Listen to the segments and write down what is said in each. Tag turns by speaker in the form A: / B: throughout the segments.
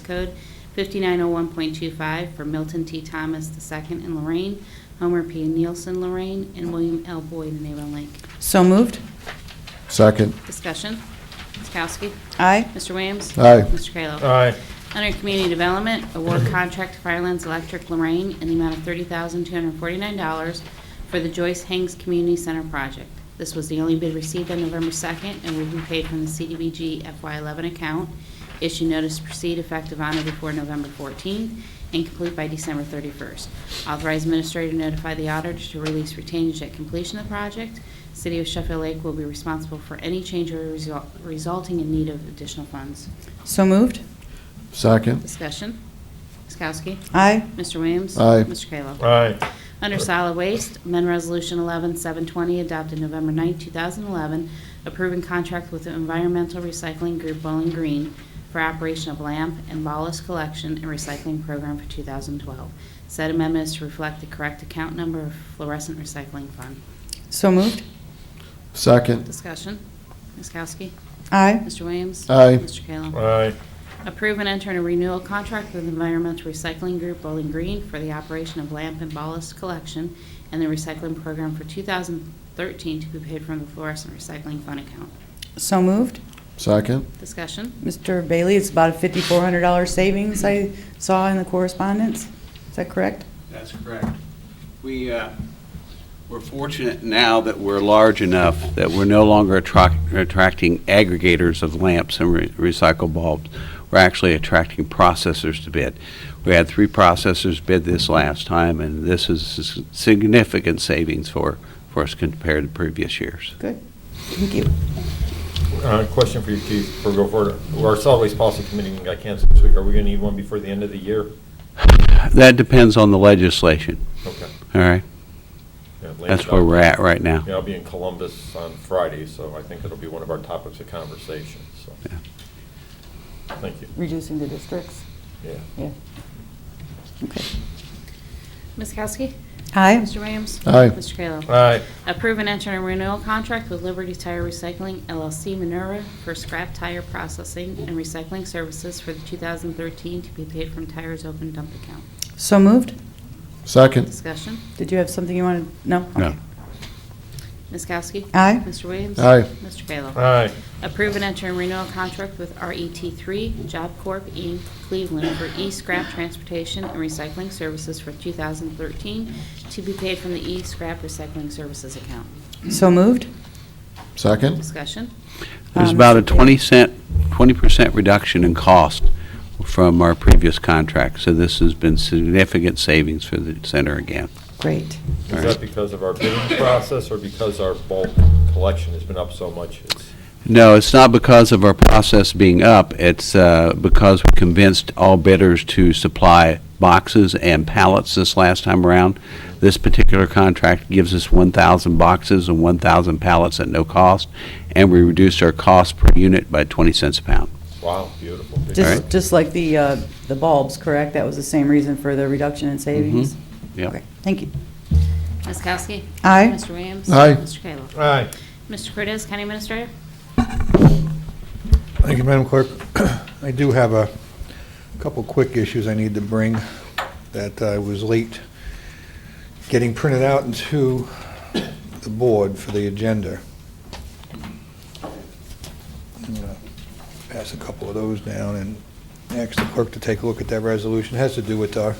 A: Revised Code 5901.25 for Milton T. Thomas II and Lorraine, Homer P. Nielsen Lorraine, and William L. Boyd in Avon Lake.
B: So moved.
C: Second,
A: Discussion. Ms. Kowski?
B: Aye.
A: Mr. Williams?
C: Aye.
A: Mr. Kayla?
D: Aye.
A: Under Community Development, award contract to Firelands Electric Lorraine in the amount of $30,249 for the Joyce Hanks Community Center project. This was the only bid received on November 2nd and will be paid from the CDBG FY11 account. Issue notice to proceed effective on or before November 14th and complete by December 31st. Authorize administrator to notify the auditor to release retainage at completion of the project. City of Sheffield Lake will be responsible for any change or result- resulting in need of additional funds.
B: So moved.
C: second,
A: Discussion. Ms. Kowski?
B: Aye.
A: Mr. Williams?
C: Aye.
A: Mr. Kayla?
D: Aye.
A: Under Solid Waste, amend Resolution 11720 adopted November 9, 2011, approving contract with the Environmental Recycling Group Bowling Green for operation of lamp and ballast collection and recycling program for 2012. Said amendment is to reflect the correct account number of fluorescent recycling fund.
B: So moved.
C: second,
A: Discussion. Ms. Kowski?
B: Aye.
A: Mr. Williams?
C: Aye.
A: Mr. Kayla?
D: Aye.
A: Approve and enter in a renewal contract with Environmental Recycling Group Bowling Green for the operation of lamp and ballast collection and the recycling program for 2013 to be paid from the fluorescent recycling fund account.
B: So moved.
C: second,
A: Discussion?
B: Mr. Bailey, it's about a $5,400 savings I saw in the correspondence. Is that correct?
E: That's correct. We, uh, we're fortunate now that we're large enough that we're no longer attract- attracting aggregators of lamps and re- recycled bulbs. We're actually attracting processors to bid. We had three processors bid this last time, and this is s- significant savings for, for us compared to previous years.
B: Good. Thank you.
D: Uh, Question for you, Chief, before we go forward. Our solid waste policy committee got canceled this week. Are we going to need one before the end of the year?
E: That depends on the legislation,
D: Okay.
E: all right?
D: Yeah, Lance
E: That's where we're at right now.
D: Yeah, I'll be in Columbus on Friday, so I think it'll be one of our topics of conversation, so.
E: Yeah.
D: Thank you.
B: Reducing the districts.
D: Yeah.
B: Yeah. Okay.
A: Ms. Kowski?
B: Aye.
A: Mr. Williams?
C: Aye.
A: Mr. Kayla?
D: Aye.
A: Approve and enter a renewal contract with Liberty Tire Recycling LLC Minerva for scrap tire processing and recycling services for the 2013 to be paid from Tires Open Dump Account.
B: So moved.
C: second,
A: Discussion?
B: Did you have something you wanted? No?
E: No.
A: Ms. Kowski?
B: Aye.
A: Mr. Williams?
C: Aye.
A: Mr. Kayla?
D: Aye.
A: Approve an interim renewal contract with RET3 Job Corp. Inc., Cleveland for e-scrap transportation and recycling services for 2013 to be paid from the e-scrap recycling services account.
B: So moved.
C: second,
A: Discussion.
E: There's
B: Um,
E: about a
B: Mr. Bailey.
E: 20 cent, 20% reduction in cost from our previous contract, so this has been significant savings for the center again.
B: Great.
E: All
D: Is
E: right.
D: that because of our bidding process or because our bulk collection has been up so much? It's-
E: No, it's not because of our process being up, it's uh, because we convinced all bidders to supply boxes and pallets this last time around. This particular contract gives us 1,000 boxes and 1,000 pallets at no cost, and we reduced our cost per unit by 20 cents a pound.
D: Wow, beautiful. Good
B: Just,
D: job.
B: just like the, uh, the bulbs, correct? That was the same reason for the reduction in
E: Mm-hmm.
B: savings?
E: Yep.
B: Okay. Thank you.
A: Ms. Kowski?
B: Aye.
A: Mr. Williams?
C: Aye.
A: Mr. Kayla?
D: Aye.
A: Mr. Cortez, County Administrator?
F: Thank you, Madam Clerk. I do have a couple quick issues I need to bring that I was late getting printed out into the board for the agenda. I'm gonna Pass a couple of those down and ask the clerk to take a look at that resolution. It has to do with our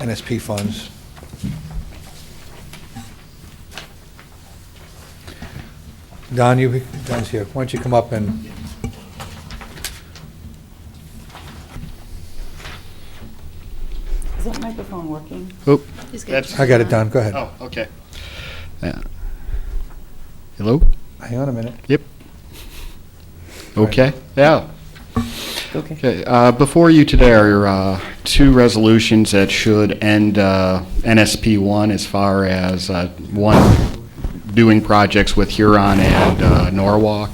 F: NSP funds. Don, you, Don's here. Why don't you come up and
B: Is that microphone working?
A: He's good.
G: That's-
F: I got it, Don, go ahead.
G: Oh, okay. Yeah. Hello?
F: Hang on a minute. Right.
G: Okay, yeah,
B: Okay.
G: okay. Uh, Before you today are uh, two resolutions that should end uh, NSP 1 as far as, uh, one, doing projects with Huron and uh, Norwalk.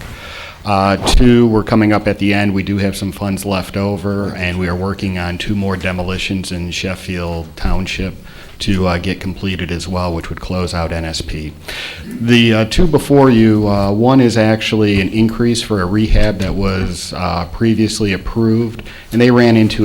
G: Uh, Two, we're coming up at the end. We do have some funds left over, and we are working on two more demolitions in Sheffield Township to uh, get completed as well, which would close out NSP. The uh, two before you, uh, one is actually an increase for a rehab that was uh, previously approved, and they ran into